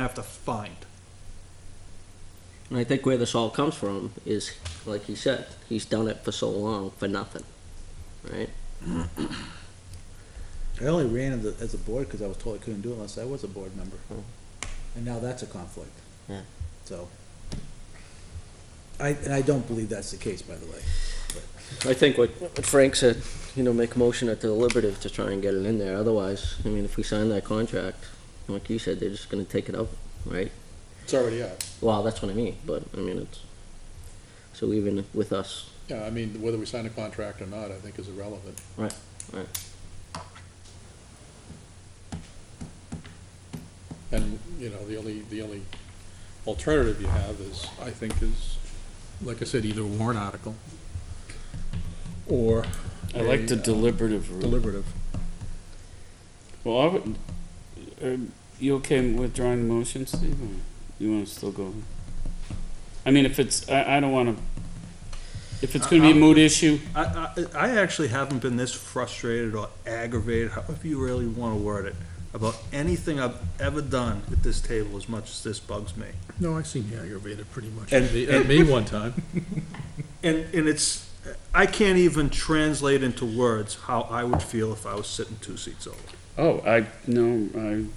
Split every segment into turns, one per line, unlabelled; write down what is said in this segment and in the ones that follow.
have to find.
And I think where this all comes from is, like he said, he's done it for so long for nothing, right?
I only ran as a, as a board because I was told I couldn't do it unless I was a board member.
Oh.
Hmm.
And now that's a conflict.
Yeah.
So. I, and I don't believe that's the case, by the way.
I think what what Frank said, you know, make a motion at the deliberative to try and get it in there, otherwise, I mean, if we sign that contract, like you said, they're just gonna take it up, right?
It's already out.
Well, that's what I mean, but, I mean, it's, so even with us,
Yeah, I mean, whether we sign a contract or not, I think is irrelevant.
right, right,
And, you know, the only, the only alternative you have is, I think, is, like I said, either a warrant article or.
I like the
a, uh,
deliberative route.
Deliberative.
Well, I would, are you okay withdrawing the motion, Steve? Or you want to still go? I mean, if it's, I, I don't want to, if it's going to be a mood issue,
I, I, I actually haven't been this frustrated or aggravated, however you really wanna word it, about anything I've ever done at this table as much as this bugs me.
No, I seem aggravated pretty much.
And-
At me- at me one time.
And, and it's, I can't even translate into words how I would feel if I was sitting two seats over.
oh, I, no, I'm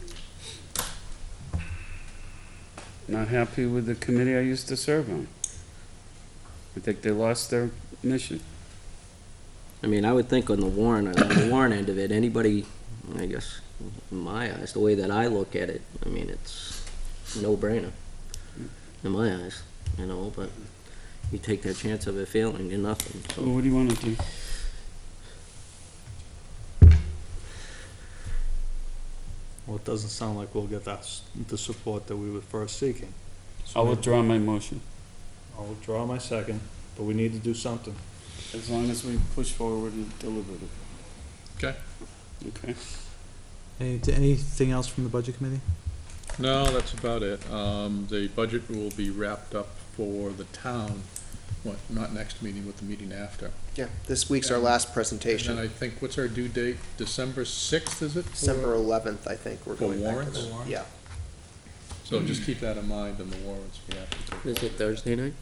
not happy with the committee I used to serve on. I think they lost their mission.
I mean, I would think on the warrant, on the warrant end of it, anybody, I guess, in my eyes, the way that I look at it, I mean, it's no-brainer in my eyes, you know, but you take that chance of it failing, you're nothing,
So
so.
what do you want to do?
Well, it doesn't sound like we'll get that, the support that we were first seeking. So
I'll
maybe-
withdraw my motion.
I'll withdraw my second, but we need to do something.
As long as we push forward and deliberative.
Okay.
Okay.
Any, anything else from the budget committee?
No, that's about it. Um, the budget will be wrapped up for the town, what, not next meeting, but the meeting after.
Yeah, this week's our
And-
last
And
presentation.
then I think, what's our due date? December sixth, is it? for-
December eleventh, I think, we're
For
going back to
warrants?
that.
For
Yeah,
So just keep that in mind in the warrants we have to take.
Is it Thursday night?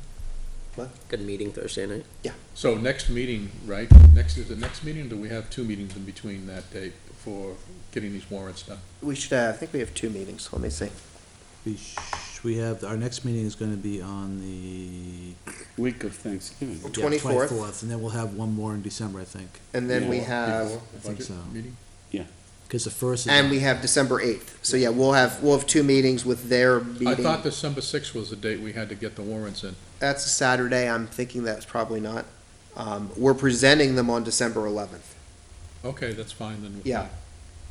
What?
Good meeting Thursday night.
So next meeting, right, next, is the next meeting, do we have two meetings in between that date for getting these warrants done?
we should, uh, I think we have two meetings, let me see.
We, sh- we have, our next meeting is gonna be on the.
Week of Thanksgiving.
yeah,
24th.
And then we'll have one more in December, I think,
And then we
Yeah.
have,
Before the
I think
budget
so.
Meeting?
cause the first is.
and we have December eighth, so yeah, we'll have, we'll have two meetings with their
I
meeting.
thought December sixth was the date we had to get the warrants in.
That's a Saturday, I'm thinking that's probably not. Um, we're presenting them on December eleventh.
Okay, that's fine then.
Yeah.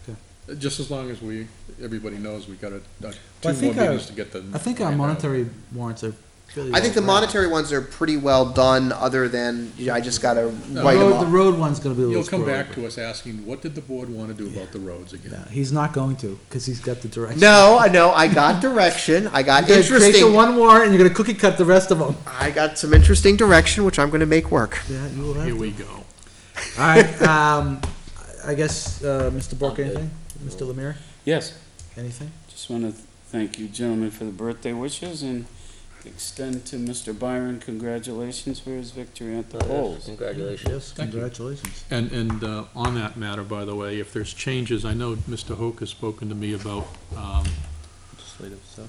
Okay.
Uh, Just as long as we, everybody knows we got a, a-
I
two more
think our-
meetings to get the.
I think our monetary warrants are fairly.
I think the
well rounded.
monetary ones are pretty well done, other than, you know, I just gotta
The
write them
road- The
off.
road one's gonna be a little.
You'll come back
squirrely.
to us asking, what did the board wanna do about the roads again?
Yeah, he's not going to, cause he's got the direction.
No, I know, I got direction, I got
You're gonna take the
interesting,
one warrant and you're gonna cookie cut the rest of them.
I got some interesting direction, which I'm gonna make work.
Yeah, you will have
Here
to.
we go.
Alright, um, I guess, uh, Mr. Bork,
I'm good.
anything? Mr. Lemire,
Yes,
anything?
just want to thank you gentlemen for the birthday wishes and extend to Mr. Byron congratulations for his victory at the
Oh.
polls.
Congratulations.
Yes,
Thank you.
congratulations.
And, and uh, on that matter, by the way, if there's changes, I know Mr. Hoke has spoken to me about um,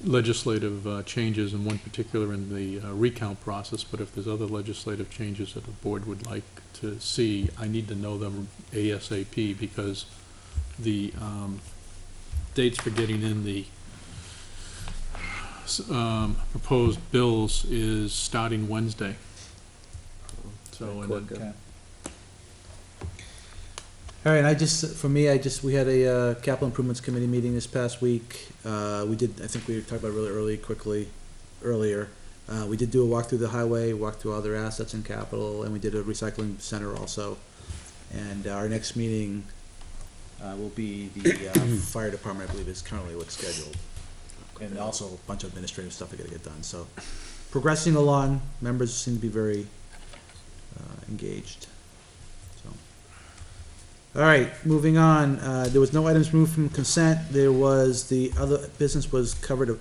legislative uh, changes, in one particular in the uh, recount process, but if there's other legislative changes that the board would like to see, I need to know them ASAP, because the um, dates for getting in the s- um, proposed bills is starting Wednesday. So, and then-
Quick, uh,
All right, I just, for me, I just, we had a uh, capital improvements committee meeting this past week. Uh, We did, I think we talked about really early, quickly, earlier. Uh, We did do a walk through the highway, walk through all their assets and capital, and we did a recycling center also. And our next meeting uh, will be the uh, fire department, I believe, is currently what's scheduled. And also a bunch of administrative stuff I gotta get done, so progressing along, members seem to be very uh, engaged, so. All right, moving on. Uh, There was no items removed from consent. There was, the other business was covered